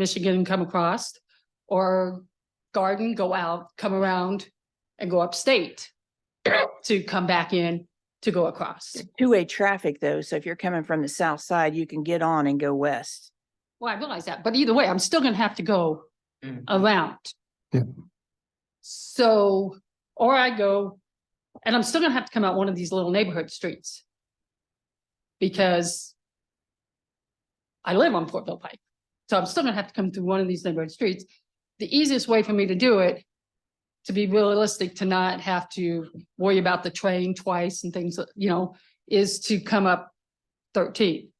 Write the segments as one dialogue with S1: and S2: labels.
S1: Michigan and come across, or garden, go out, come around and go upstate to come back in to go across.
S2: Two-way traffic though, so if you're coming from the south side, you can get on and go west.
S1: Well, I realize that, but either way, I'm still gonna have to go
S3: Mm.
S1: around.
S4: Yeah.
S1: So, or I go, and I'm still gonna have to come out one of these little neighborhood streets. Because I live on Fortville Pike, so I'm still gonna have to come through one of these neighborhood streets. The easiest way for me to do it, to be realistic, to not have to worry about the train twice and things, you know, is to come up thirteen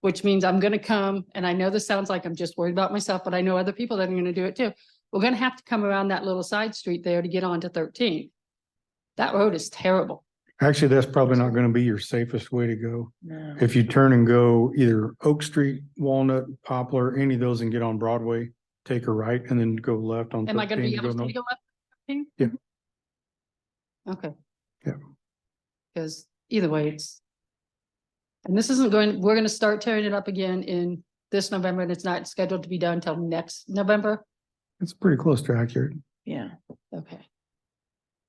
S1: which means I'm gonna come, and I know this sounds like I'm just worried about myself, but I know other people that are gonna do it too. We're gonna have to come around that little side street there to get onto thirteen. That road is terrible.
S4: Actually, that's probably not going to be your safest way to go.
S2: No.
S4: If you turn and go either Oak Street, Walnut, Poplar, any of those and get on Broadway, take a right and then go left on
S1: Am I gonna
S4: thirteen.
S1: be
S4: to go
S1: able to
S4: north.
S1: go up? 13?
S4: Yeah.
S1: Okay.
S4: Yeah.
S1: Cause either way, it's. And this isn't going, we're gonna start tearing it up again in this November, and it's not scheduled to be done until next November.
S4: It's pretty close to accurate.
S2: Yeah,
S1: Okay.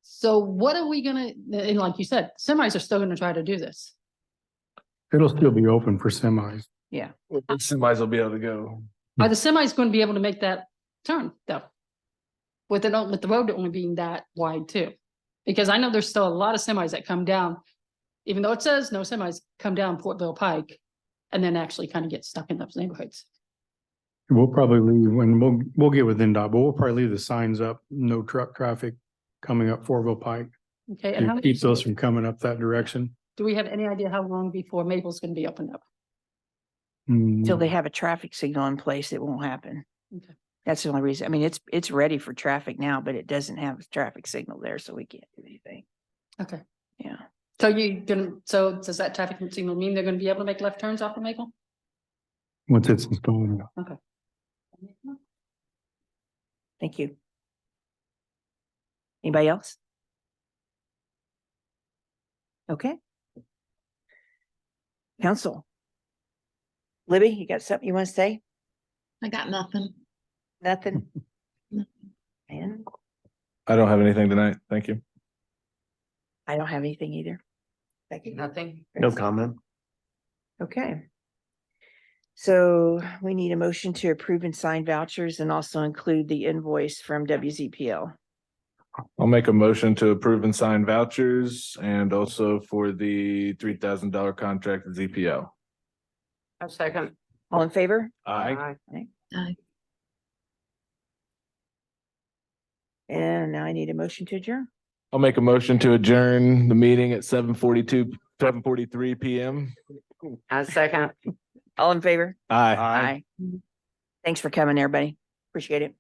S1: So what are we gonna, and like you said, semis are still gonna try to do this.
S4: It'll still be open for semis.
S3: Semis will be able to go.
S1: Are the semis going to be able to make that turn though? With it, with the road only being that wide too? Because I know there's still a lot of semis that come down, even though it says no semis come down Portville Pike. And then actually kind of get stuck in those neighborhoods.
S4: We'll probably leave when we'll, we'll get with NDOT, but we'll probably leave the signs up, no truck traffic coming up Fourville Pike.
S1: Okay. and how
S4: to
S1: many-
S4: Keep those from coming up that direction.
S1: Do we have any idea how long before Maple's going to be opened up?
S2: till
S4: Mm,
S2: they have a traffic signal in place, it won't happen.
S1: Okay.
S2: That's the only reason. I mean, it's, it's ready for traffic now, but it doesn't have a traffic signal there, so we can't do anything.
S1: Okay.
S2: Yeah.
S1: So you didn't, so does that traffic signal mean they're going to be able to make left turns off of Maple?
S4: Once it's installed.
S2: Thank you. Anybody else? Okay. Council. Libby, you got something you want to say?
S5: I got nothing.
S2: Nothing?
S5: No.
S2: And
S3: I don't have anything tonight. Thank you.
S2: I don't have anything either. Becky?
S1: Nothing.
S3: No comment.
S2: Okay. So we need a motion to approve and sign vouchers and also include the invoice from WZPL.
S3: I'll make a motion to approve and sign vouchers and also for the three thousand dollar contract with ZPO.
S6: A second.
S2: All in favor?
S3: Aye.
S5: Aye.
S2: And now I need a motion to adjourn.
S3: I'll make a motion to adjourn the meeting at seven forty-two, seven forty-three PM.
S6: A second.
S2: All in favor?
S3: Aye.
S2: Thanks for coming, everybody. Appreciate it.